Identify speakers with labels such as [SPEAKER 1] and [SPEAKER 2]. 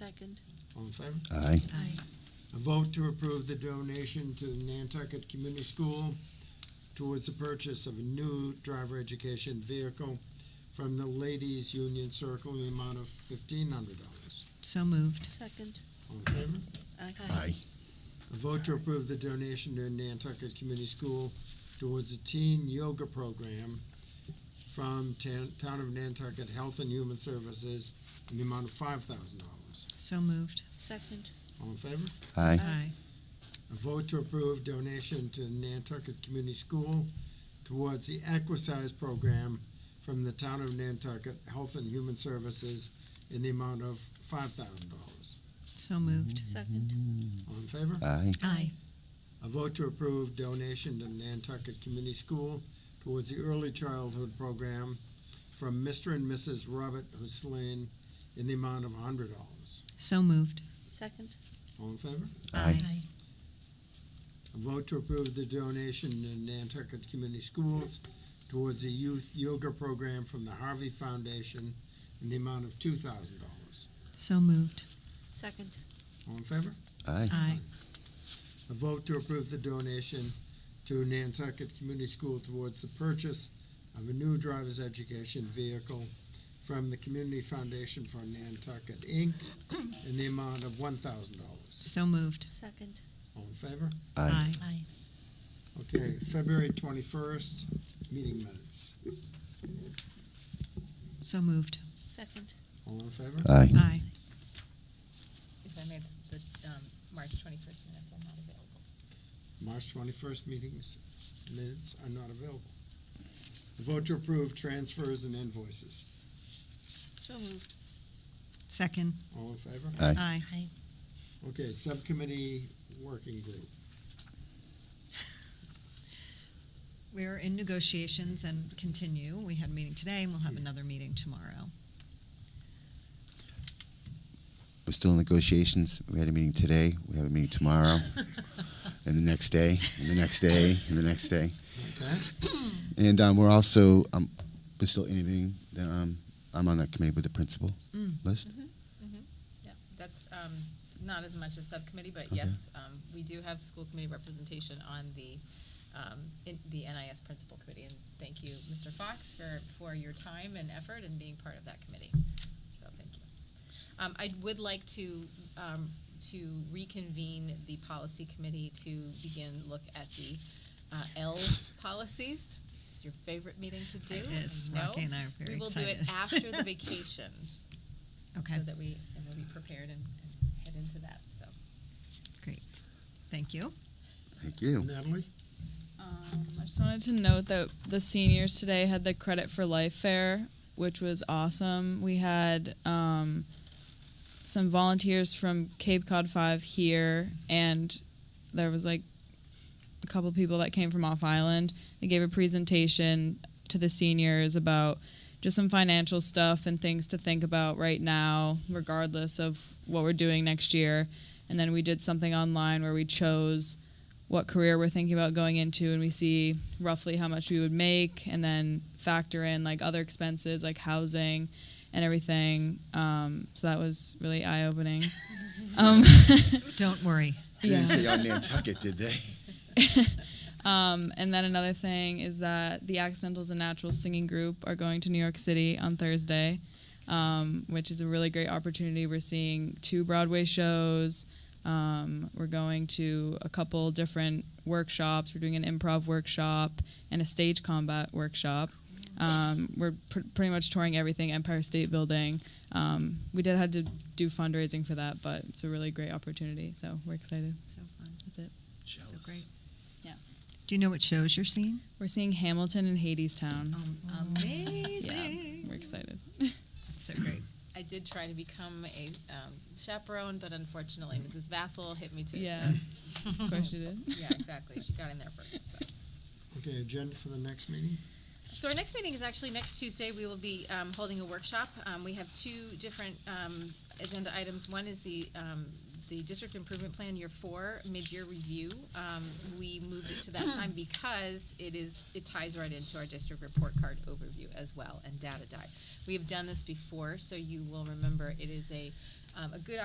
[SPEAKER 1] Second.
[SPEAKER 2] All in favor?
[SPEAKER 3] Aye.
[SPEAKER 1] Aye.
[SPEAKER 2] A vote to approve the donation to the Nantucket Community School towards the purchase of a new driver education vehicle from the Ladies Union Circle in the amount of fifteen hundred dollars.
[SPEAKER 4] So moved.
[SPEAKER 1] Second.
[SPEAKER 2] All in favor?
[SPEAKER 1] Aye.
[SPEAKER 2] A vote to approve the donation to Nantucket Community School towards the teen yoga program from Tan- Town of Nantucket Health and Human Services in the amount of five thousand dollars.
[SPEAKER 4] So moved.
[SPEAKER 1] Second.
[SPEAKER 2] All in favor?
[SPEAKER 3] Aye.
[SPEAKER 4] Aye.
[SPEAKER 2] A vote to approve donation to Nantucket Community School towards the Equisize Program from the Town of Nantucket Health and Human Services in the amount of five thousand dollars.
[SPEAKER 4] So moved.
[SPEAKER 1] Second.
[SPEAKER 2] All in favor?
[SPEAKER 3] Aye.
[SPEAKER 4] Aye.
[SPEAKER 2] A vote to approve donation to Nantucket Community School towards the Early Childhood Program from Mr. and Mrs. Robert Hussein in the amount of hundred dollars.
[SPEAKER 4] So moved.
[SPEAKER 1] Second.
[SPEAKER 2] All in favor?
[SPEAKER 3] Aye.
[SPEAKER 2] A vote to approve the donation to Nantucket Community Schools towards the youth yoga program from the Harvey Foundation in the amount of two thousand dollars.
[SPEAKER 4] So moved.
[SPEAKER 1] Second.
[SPEAKER 2] All in favor?
[SPEAKER 3] Aye.
[SPEAKER 4] Aye.
[SPEAKER 2] A vote to approve the donation to Nantucket Community School towards the purchase of a new driver's education vehicle from the Community Foundation for Nantucket, Inc., in the amount of one thousand dollars.
[SPEAKER 4] So moved.
[SPEAKER 1] Second.
[SPEAKER 2] All in favor?
[SPEAKER 3] Aye.
[SPEAKER 1] Aye.
[SPEAKER 2] Okay, February twenty-first, meeting minutes.
[SPEAKER 4] So moved.
[SPEAKER 1] Second.
[SPEAKER 2] All in favor?
[SPEAKER 3] Aye.
[SPEAKER 4] Aye.
[SPEAKER 5] If I may, the, um, March twenty-first minutes are not available.
[SPEAKER 2] March twenty-first meetings minutes are not available. A Vote to approve transfers and invoices.
[SPEAKER 1] So moved.
[SPEAKER 4] Second.
[SPEAKER 2] All in favor?
[SPEAKER 3] Aye.
[SPEAKER 4] Aye.
[SPEAKER 2] Okay, subcommittee working group.
[SPEAKER 4] We're in negotiations and continue. We had a meeting today and we'll have another meeting tomorrow.
[SPEAKER 3] We're still in negotiations. We had a meeting today. We have a meeting tomorrow. And the next day, and the next day, and the next day.
[SPEAKER 2] Okay,
[SPEAKER 3] And um, we're also, um, we're still interviewing, the, um, I'm on that committee with the principal
[SPEAKER 4] Mm.
[SPEAKER 3] list.
[SPEAKER 5] Yeah, that's, um, not as much a subcommittee, but
[SPEAKER 3] Okay.
[SPEAKER 5] yes, um, we do have school committee representation on the, um, in, the NIS Principal Committee. And thank you, Mr. Fox, for, for your time and effort and being part of that committee. So thank you. Um, I would like to, um, to reconvene the policy committee to begin look at the, uh, L policies. It's your favorite meeting to do. I
[SPEAKER 4] Yes,
[SPEAKER 5] know.
[SPEAKER 4] Rocky and I are very
[SPEAKER 5] We will do it
[SPEAKER 4] excited.
[SPEAKER 5] after the vacation
[SPEAKER 4] Okay,
[SPEAKER 5] so that we and we'll be prepared and, and head into that. So
[SPEAKER 4] thank you.
[SPEAKER 3] Thank you.
[SPEAKER 2] Natalie?
[SPEAKER 6] Um, I just wanted to note that the seniors today had the Credit for Life Fair, which was awesome. We had um, some volunteers from Cape Cod 5 here, and there was like a couple people that came from off island. They gave a presentation to the seniors about just some financial stuff and things to think about right now, regardless of what we're doing next year. And then we did something online where we chose what career we're thinking about going into and we see roughly how much we would make and then factor in like other expenses like housing and everything um, so that was really eye-opening um,
[SPEAKER 4] Don't worry.
[SPEAKER 3] They didn't say on Nantucket, did they?
[SPEAKER 6] um, and then another thing is that the accidentals and naturals singing group are going to new york city on thursday um, which is a really great opportunity we're seeing two broadway shows um, we're going to a couple different workshops we're doing an improv workshop and a stage combat workshop um, we're pr- pretty much touring everything empire state building um, we did have to do fundraising for that but it's a really great opportunity so we're excited
[SPEAKER 4] So fun.
[SPEAKER 6] that's it
[SPEAKER 4] So great.
[SPEAKER 6] Yeah.
[SPEAKER 4] Do you know what shows you're seeing?
[SPEAKER 6] we're seeing hamilton and hadestown
[SPEAKER 4] Amazing.
[SPEAKER 6] We're excited.
[SPEAKER 4] So great.
[SPEAKER 5] I did try to become a um, chaperone, but unfortunately, Mrs. Vassal hit me too.
[SPEAKER 6] Yeah. of course you did.
[SPEAKER 5] yeah, exactly. She got in there first. So.
[SPEAKER 2] Okay, agenda for the next meeting?
[SPEAKER 5] So our next meeting is actually next Tuesday. We will be um, holding a workshop. Um, We have two different um, agenda items. One is the, um, the district improvement plan year four, mid-year review. Um, We moved it to that time because it is, it ties right into our district report card overview as well and data dive. We have done this before, so you will remember it is a, um, a good